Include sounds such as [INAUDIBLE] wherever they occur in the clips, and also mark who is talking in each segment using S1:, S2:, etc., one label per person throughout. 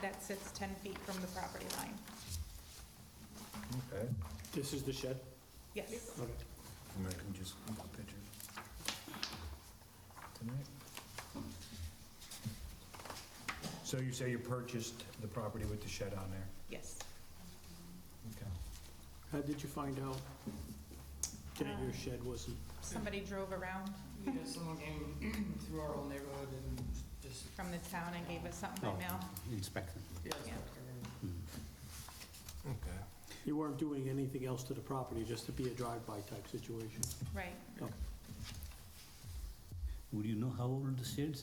S1: that sits 10 feet from the property line.
S2: Okay.
S3: This is the shed?
S1: Yes.
S3: Okay.
S2: And I can just look at the picture. Tonight? So you say you purchased the property with the shed on there?
S1: Yes.
S2: Okay.
S3: How did you find out that
S4: Uh.
S3: your shed wasn't?
S1: Somebody drove around
S5: Yeah, someone came through our whole neighborhood and just,
S1: from the town and gave us something by
S6: Oh.
S1: mail.
S6: Inspector.
S5: yeah.
S1: Yeah.
S2: Okay.
S3: You weren't doing anything else to the property, just to be a drive-by type situation?
S1: Right.
S3: Okay.
S6: Would you know how old the shed is?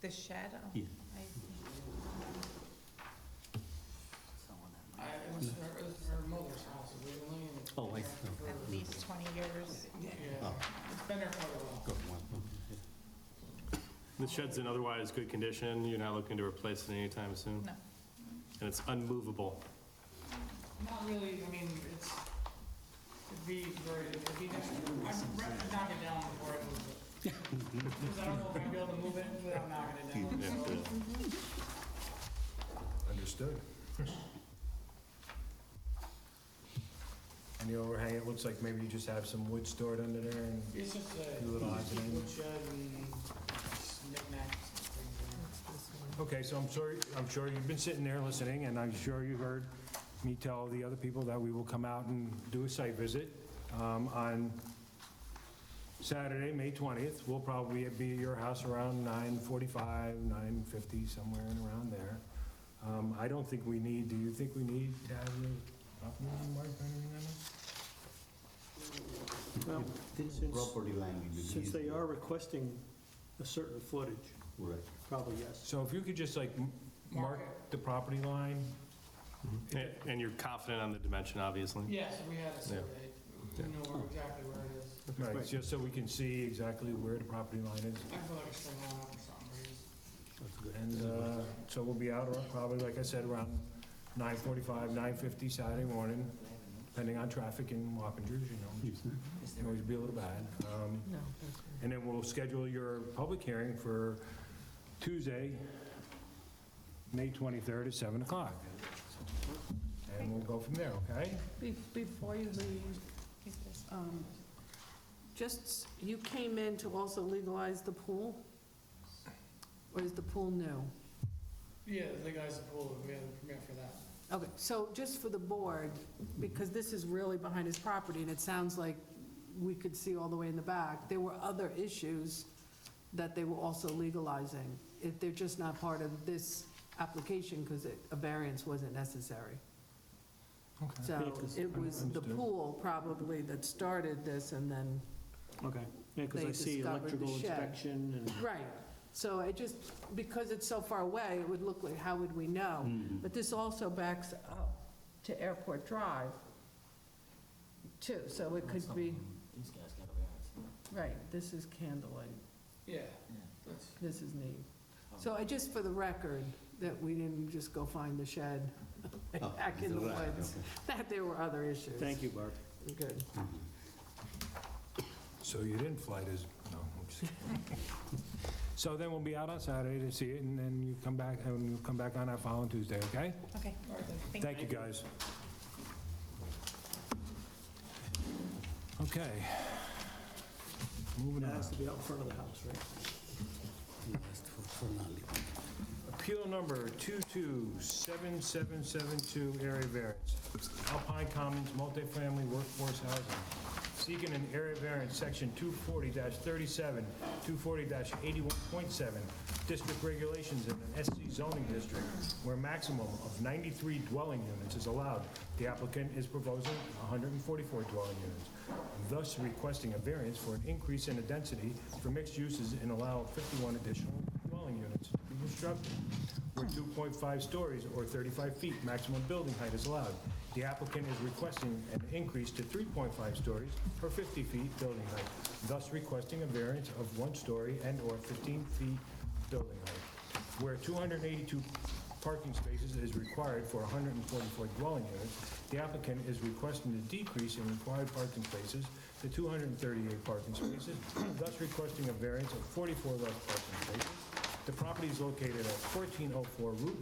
S1: The shed? oh,
S6: Yeah.
S1: I-
S5: I, it was her, it was her mother's house originally and. it's been
S6: Oh, I-
S5: there for-
S1: At least 20 years.
S5: Yeah, it's been there for a while.
S6: Got one.
S7: The shed's in otherwise good condition, you're not looking to replace it anytime soon?
S1: No.
S7: And it's unmovable.
S5: Not really, I mean, it's, it'd be very, it'd be, I'd rather knock it down before I move it. Because I don't know if I'd be able to move it without knocking it down.
S7: Yeah,
S5: so-
S7: yeah.
S2: Understood.
S7: [LAUGHS]
S2: And the overhang, it looks like maybe you just have some wood stored under there and
S5: It's just a
S2: do a little odds and ends.
S5: woodshed and just knickknacks and things
S2: Okay, so I'm sorry, I'm sure you've been sitting there listening, and I'm sure you heard me tell the other people that we will come out and do a site visit um, on Saturday, May 20th. We'll probably be at your house around 9:45, 9:50, somewhere in around there. Um, I don't think we need, do you think we need to have a property line marked or anything on it?
S3: Well,
S6: There is a
S3: Since-
S6: property line. will be
S3: since they
S6: used.
S3: are requesting a certain footage,
S6: Right.
S3: probably yes.
S2: So if you could just like m- mark
S5: Mark
S2: the property line,
S7: And- And you're confident on the dimension,
S5: in there.
S7: obviously?
S5: Yeah, so we had a survey, we
S7: Yeah.
S5: know where- exactly where it is.
S2: right,
S3: Right.
S2: just so we can see exactly where the property line is.
S5: I feel like it's still on or something, but it's-
S6: That's good.
S2: And uh, so we'll be out ar- probably, like I said, around 9:45, 9:50 Saturday morning, depending on traffic in Wappingers, you know, which
S6: Yes, sir.
S2: can always be a little bad. Um, And then we'll schedule your public hearing for Tuesday, May 23rd at 7 o'clock. And we'll go from there, okay?
S4: Be- Before you leave,
S1: He's just-
S4: um, just, you came in to also legalize the pool? Or is the pool new?
S5: Yeah, the guys at Pool, we had a permit for that.
S4: Okay, so just for the board, because this is really behind his property, and it sounds like we could see all the way in the back, there were other issues that they were also legalizing, if they're just not part of this application, because a variance wasn't necessary. So uh, it was the
S2: Understood.
S4: pool probably that started this, and then
S3: Okay, yeah, because I
S4: They
S3: see
S4: discovered the
S3: electrical
S4: shed.
S3: inspection and...
S4: Right, so I just, because it's so far away, it would look like, how would we know?
S6: Mm-hmm.
S4: But this also backs up to Airport Drive, too, so it could be, right, this is Candlelight,
S5: Yeah, that's,
S4: this is neat.
S6: Oh.
S4: So I, just for the record, that we didn't just go find the shed
S6: Oh,
S4: [LAUGHS] back in the
S6: right,
S4: woods,
S6: okay.
S4: [LAUGHS] that there were other issues.
S3: Thank you, Barb.
S4: Good.
S2: So you didn't fly this, no, I'm just kidding. So then we'll be out on Saturday to see it, and then you come back, and you'll come back on that following Tuesday, okay?
S1: Okay. Thank
S2: Thank you, guys. Okay. Moving
S3: That
S2: on.
S3: has to be out in front of the house, right?
S6: Just for- for now, leave.
S2: Appeal number 227772, area variance. Alpine Commons multifamily workforce housing. Seeking an area variance, section 240-37, 240-81.7, district regulations in an SC zoning district where maximum of 93 dwelling units is allowed. The applicant is proposing 144 dwelling units, thus requesting a variance for an increase in the density for mixed uses and allow 51 additional dwelling units to be constructed, where 2.5 stories or 35 feet maximum building height is allowed. The applicant is requesting an increase to 3.5 stories or 50 feet building height, thus requesting a variance of one story and/or 15 feet building height. Where 282 parking spaces is required for 144 dwelling units, the applicant is requesting a decrease in required parking spaces to 238 parking spaces, thus requesting a variance of 44 less parking spaces. The property is located at 1404 Route